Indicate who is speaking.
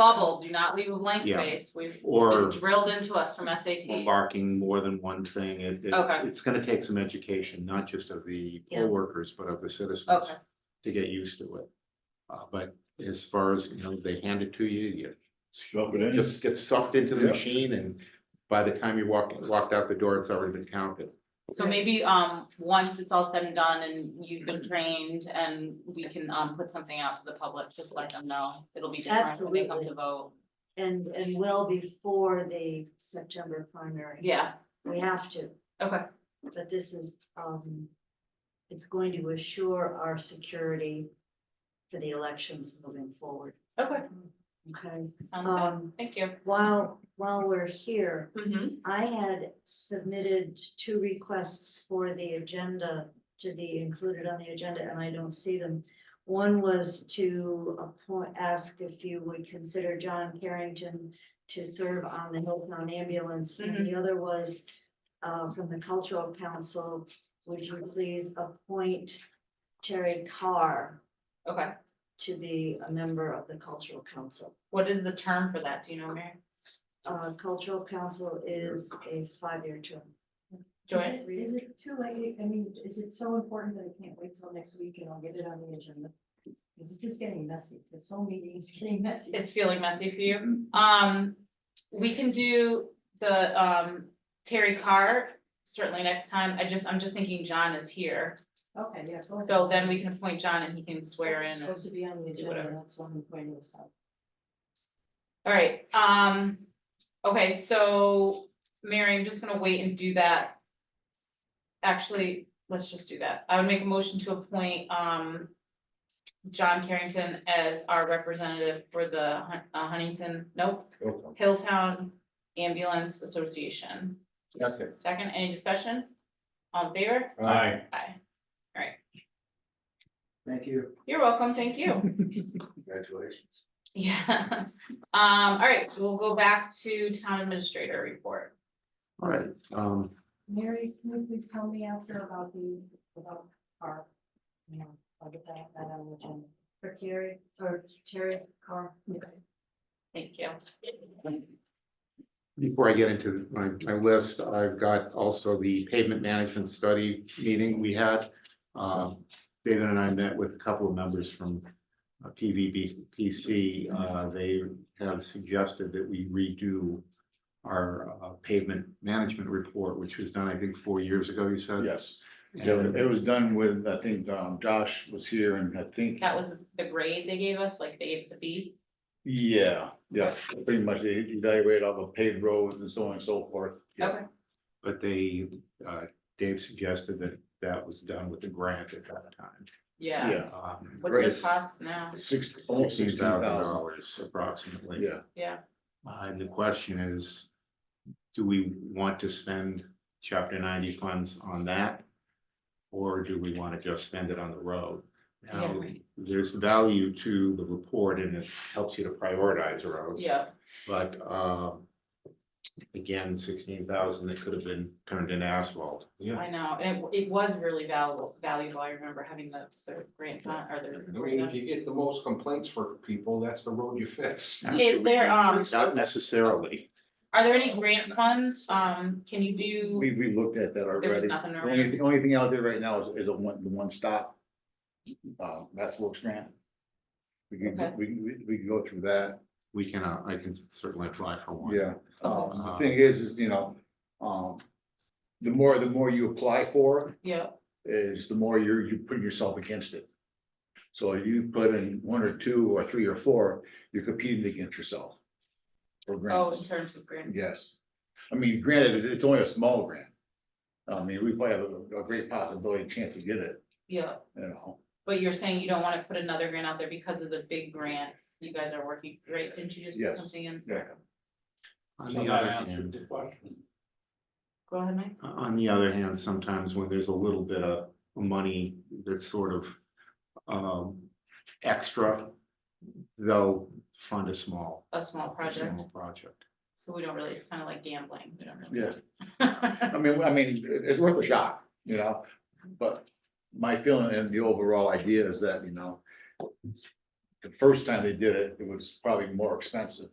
Speaker 1: bubble, do not leave a blank
Speaker 2: Yeah.
Speaker 1: space, we've been
Speaker 2: Or
Speaker 1: drilled into us from SAT.
Speaker 2: marking more than one thing, it, it-
Speaker 1: Okay.
Speaker 2: it's gonna take some education, not just of the
Speaker 1: Yeah.
Speaker 2: poll workers, but of the citizens
Speaker 1: Okay,
Speaker 2: to get used to it. Uh, but as far as, you know, they hand it to you,
Speaker 3: Shove it
Speaker 2: you
Speaker 3: in.
Speaker 2: just get sucked into the
Speaker 3: Yeah.
Speaker 2: machine and by the time you walk, walked out the door, it's already been counted.
Speaker 1: so maybe, um, once it's all said and done and you've been trained and we can, um, put something out to the public, just let them know. It'll be different when they come to
Speaker 4: Absolutely.
Speaker 1: vote.
Speaker 4: And, and well before the September primary.
Speaker 1: Yeah,
Speaker 4: We have to,
Speaker 1: okay,
Speaker 4: but this is, um, it's going to assure our security for the elections moving forward,
Speaker 1: okay,
Speaker 4: okay?
Speaker 1: sounds good.
Speaker 4: Um,
Speaker 1: Thank you.
Speaker 4: while, while we're here,
Speaker 1: Mhm.
Speaker 4: I had submitted two requests for the agenda to be included on the agenda, and I don't see them. One was to appoint, ask if you would consider John Carrington to serve on the Hilltown Ambulance. And the other was, uh, from the Cultural Council, would you please appoint Terry Carr
Speaker 1: Okay,
Speaker 4: to be a member of the Cultural Council?
Speaker 1: what is the term for that? Do you know, Mary?
Speaker 4: Uh, Cultural Council is a five-year term.
Speaker 1: Joy?
Speaker 5: Is it too late? I mean, is it so important that I can't wait till next week and I'll get it on the agenda? Because this is getting messy. This whole meeting is getting messy.
Speaker 1: It's feeling messy for you.
Speaker 4: Mm-hmm.
Speaker 1: Um, we can do the, um, Terry Carr certainly next time. I just, I'm just thinking John is here.
Speaker 5: Okay, yeah. go ahead.
Speaker 1: So then we can appoint John and he can swear
Speaker 5: It's
Speaker 1: in.
Speaker 5: Supposed to be on the agenda.
Speaker 1: whatever.
Speaker 5: That's one point of stuff.
Speaker 1: All right, um, okay, so Mary, I'm just gonna wait and do that. Actually, let's just do that. I would make a motion to appoint, um, John Carrington as our representative for the Hun- uh, Huntington, nope, Hilltown Ambulance Association.
Speaker 2: Second.
Speaker 1: Second, any discussion? On favor?
Speaker 3: Aye.
Speaker 1: Aye. All right,
Speaker 3: Thank you.
Speaker 1: you're welcome, thank you.
Speaker 3: Congratulations.
Speaker 1: Yeah, um, all right, we'll go back to town administrator report.
Speaker 2: All right, um,
Speaker 5: Mary, can you please tell me after about the, about our, you know, I'll get that, that on the agenda.
Speaker 4: For Terry, for Terry Carr.
Speaker 1: Thank you.
Speaker 2: Before I get into my, my list, I've got also the pavement management study meeting we had. Um, David and I met with a couple of members from uh, PVBPC. Uh, they have suggested that we redo our uh, pavement management report, which was done, I think, four years ago, you said?
Speaker 3: Yes, it was-
Speaker 2: And
Speaker 3: it was done with, I think, um, Josh was here and I think,
Speaker 1: That was the grade they gave us, like they gave us a B.
Speaker 3: yeah, yeah, pretty much they evaluated all the paved roads and so on and so forth.
Speaker 1: Okay,
Speaker 2: But they, uh, Dave suggested that that was done with the grant at that time.
Speaker 1: yeah.
Speaker 3: Yeah,
Speaker 2: Um,
Speaker 1: What's
Speaker 3: Grace.
Speaker 1: the cost now?
Speaker 3: six, almost sixteen thousand,
Speaker 2: dollars approximately.
Speaker 3: yeah.
Speaker 1: Yeah,
Speaker 2: Uh, and the question is, do we want to spend chapter ninety funds on that? Or do we want to just spend it on the road? Now,
Speaker 1: Yeah, right.
Speaker 2: there's value to the report and it helps you to prioritize roads.
Speaker 1: yeah,
Speaker 2: But, um, again, sixteen thousand, that could have been turned into asphalt. Yeah.
Speaker 1: I know, and it, it was really valuable, valuable, I remember having the, the grant, fund- or
Speaker 6: I mean, if
Speaker 1: the.
Speaker 6: you get the most complaints for people, that's the road you fix.
Speaker 1: Is there, um,
Speaker 2: Not necessarily.
Speaker 1: are there any grant funds, um, can you do,
Speaker 3: We, we looked at that
Speaker 1: there was
Speaker 3: already.
Speaker 1: nothing
Speaker 3: The
Speaker 1: around?
Speaker 3: only, the only thing out there right now is, is a one, the one stop. Uh, that's Wilkes grant. We
Speaker 1: Okay.
Speaker 3: can, we, can- we, we can go through that,
Speaker 2: We can, uh, I can certainly apply for one.
Speaker 3: yeah. Um, the thing is, is, you know, um, the more, the more you apply for,
Speaker 1: Yeah,
Speaker 3: is the more you're, you putting yourself against it. So if you put in one or two or three or four, you're competing against yourself.
Speaker 1: oh,
Speaker 3: For
Speaker 1: in
Speaker 3: grants,
Speaker 1: terms of grant,
Speaker 3: yes. I mean, granted, it- it's only a small grant. I mean, we probably have a, a great possibility, chance to get it,
Speaker 1: yeah.
Speaker 3: you know,
Speaker 1: But you're saying you don't wanna put another grant out there because of the big grant you guys are working, right? Didn't you just put
Speaker 3: Yes.
Speaker 1: something in?
Speaker 3: Yeah.
Speaker 2: On the other hand.
Speaker 1: Go ahead, Mike.
Speaker 2: On the other hand, sometimes when there's a little bit of money that's sort of um extra, they'll fund a small.
Speaker 1: A small project,
Speaker 2: small Project.
Speaker 1: so we don't really, it's kinda like gambling, we don't really.
Speaker 3: yeah. I mean, I mean, it- it's worth a shot, you know, but my feeling and the overall idea is that, you know, the first time they did it, it was probably more expensive.